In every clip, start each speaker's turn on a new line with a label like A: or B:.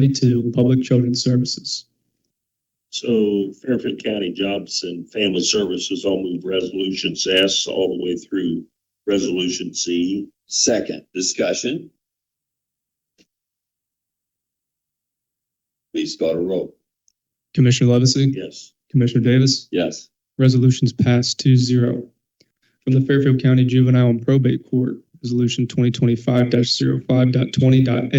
A: seventy-two, Public Children's Services.
B: So Fairfield County Jobs and Family Services, I'll move resolutions S all the way through resolution Z.
C: Second, discussion. Please start a roll.
A: Commissioner Levesey?
B: Yes.
A: Commissioner Davis?
C: Yes.
A: Resolutions passed 2-0 From the Fairfield County Juvenile and Probate Court, Resolution twenty twenty-five 52020aa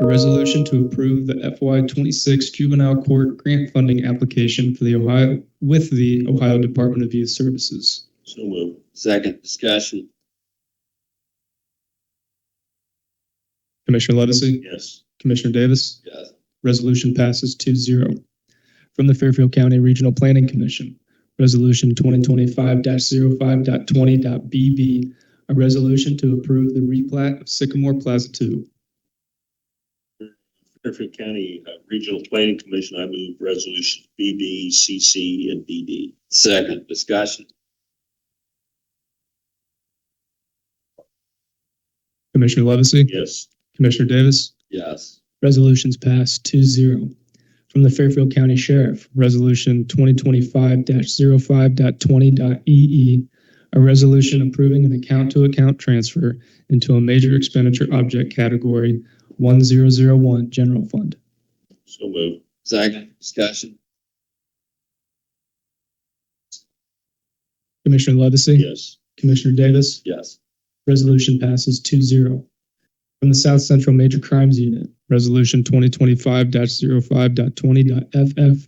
A: A resolution to approve the FY twenty-six Juvenile Court Grant Funding Application for the Ohio, with the Ohio Department of Youth Services.
B: So move.
C: Second, discussion.
A: Commissioner Levesey?
B: Yes.
A: Commissioner Davis?
C: Yes.
A: Resolution passes 2-0 From the Fairfield County Regional Planning Commission, Resolution 2025-05.20.BB, a resolution to approve the replat of Sycamore Plaza 2.
B: Fairfield County uh, Regional Planning Commission, I move resolutions BB, CC, and DD.
C: Second, discussion.
A: Commissioner Levesey?
B: Yes.
A: Commissioner Davis?
C: Yes.
A: Resolutions passed 2-0 From the Fairfield County Sheriff, Resolution 2025-05.20.EE, E a resolution approving an account-to-account transfer into a major expenditure object category 1001 General Fund.
B: So move.
C: Second, discussion.
A: Commissioner Levesey?
B: Yes.
A: Commissioner Davis?
C: Yes.
A: Resolution passes 2-0 From the South Central Major Crimes Unit, Resolution 2025-05.20.FF,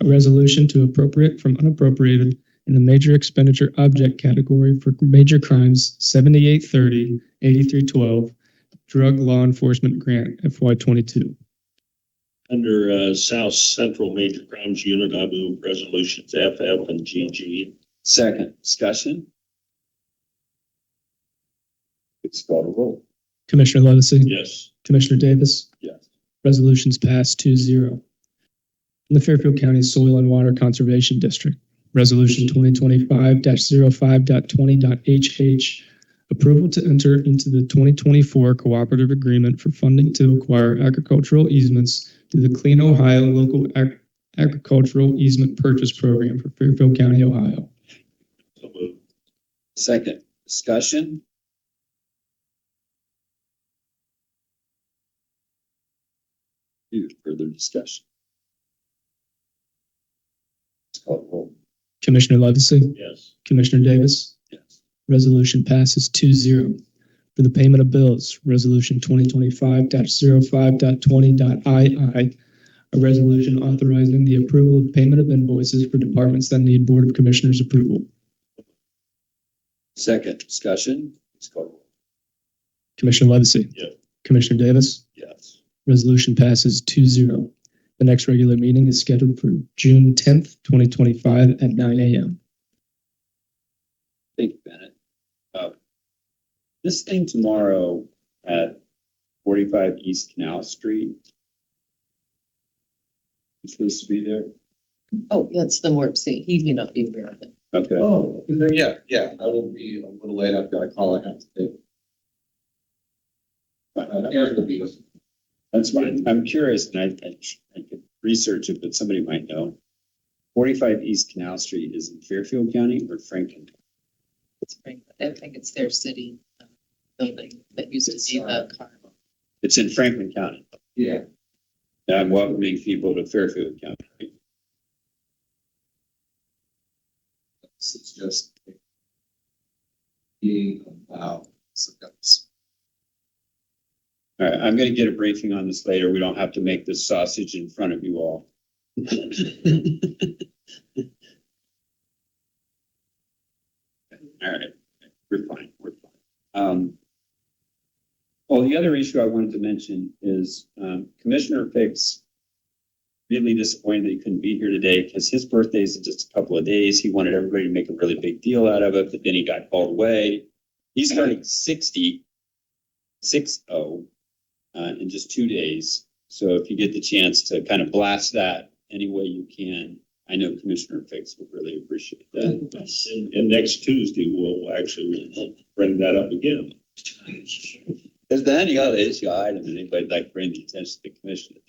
A: a resolution to appropriate from unappropriated in the major expenditure object category for major crimes 7830, 8312, drug law enforcement grant FY22.
B: Under uh, South Central Major Crimes Unit, I move resolutions FF and GG.
C: Second, discussion. Please start a roll.
A: Commissioner Levesey?
B: Yes.
A: Commissioner Davis?
C: Yes.
A: Resolutions passed 2-0 From the Fairfield County Soil and Water Conservation District, Resolution 2025-05.20.HH, approval to enter into the 2024 cooperative agreement for funding to acquire agricultural easements through the Clean Ohio Local Ag- Agricultural Easement Purchase Program for Fairfield County, Ohio.
B: So move.
C: Second, discussion. Any Further discussion. Please call the roll.
A: Commissioner Levesey?
B: Yes.
A: Commissioner Davis?
C: Yes.
A: Resolution passes 2-0 For the payment of bills, Resolution 2025-05.20.II, a resolution authorizing the approval of payment of invoices for departments that need Board of Commissioners approval.
C: Second, discussion. Please call the roll.
A: Commissioner Levesey?
B: Yeah.
A: Commissioner Davis?
C: Yes.
A: Resolution passes 2-0. The next regular meeting is scheduled for June 10th, 2025 at nine a.m.
C: Thank you, Bennett. Uh, This thing tomorrow at forty-five East Canal Street. You're supposed to be there?
D: Oh, that's the Morp C. He may not be aware of it.
C: Okay.
E: Oh, yeah, yeah, I will be a little late. I've got a call I have to take. But uh, Aaron will be with-
C: That's fine. I'm curious, and I, I, I could research it, but somebody might know. Forty-five East Canal Street is in Fairfield County or Franklin?
D: It's right. I think it's their city uh, building that used to be the car.
C: It's in Franklin County.
E: Yeah,
C: I'm welcoming people to Fairfield County. right?
E: this is just being allowed. So that's,
C: All right, I'm gonna get a briefing on this later. We don't have to make this sausage in front of you all. All right, we're fine, we're fine. Um. Well, the other issue I wanted to mention is um, Commissioner Fix. Really disappointed that he couldn't be here today because his birthday's in just a couple of days. He wanted everybody to make a really big deal out of it, but then he got called away. He's turning sixty, six oh, uh, in just two days. So if you get the chance to kind of blast that any way you can, I know Commissioner Fix would really appreciate that.
B: And and next Tuesday, we'll actually bring that up again.
C: Is there any other issue or item that anybody would like to bring to the attention of the commission?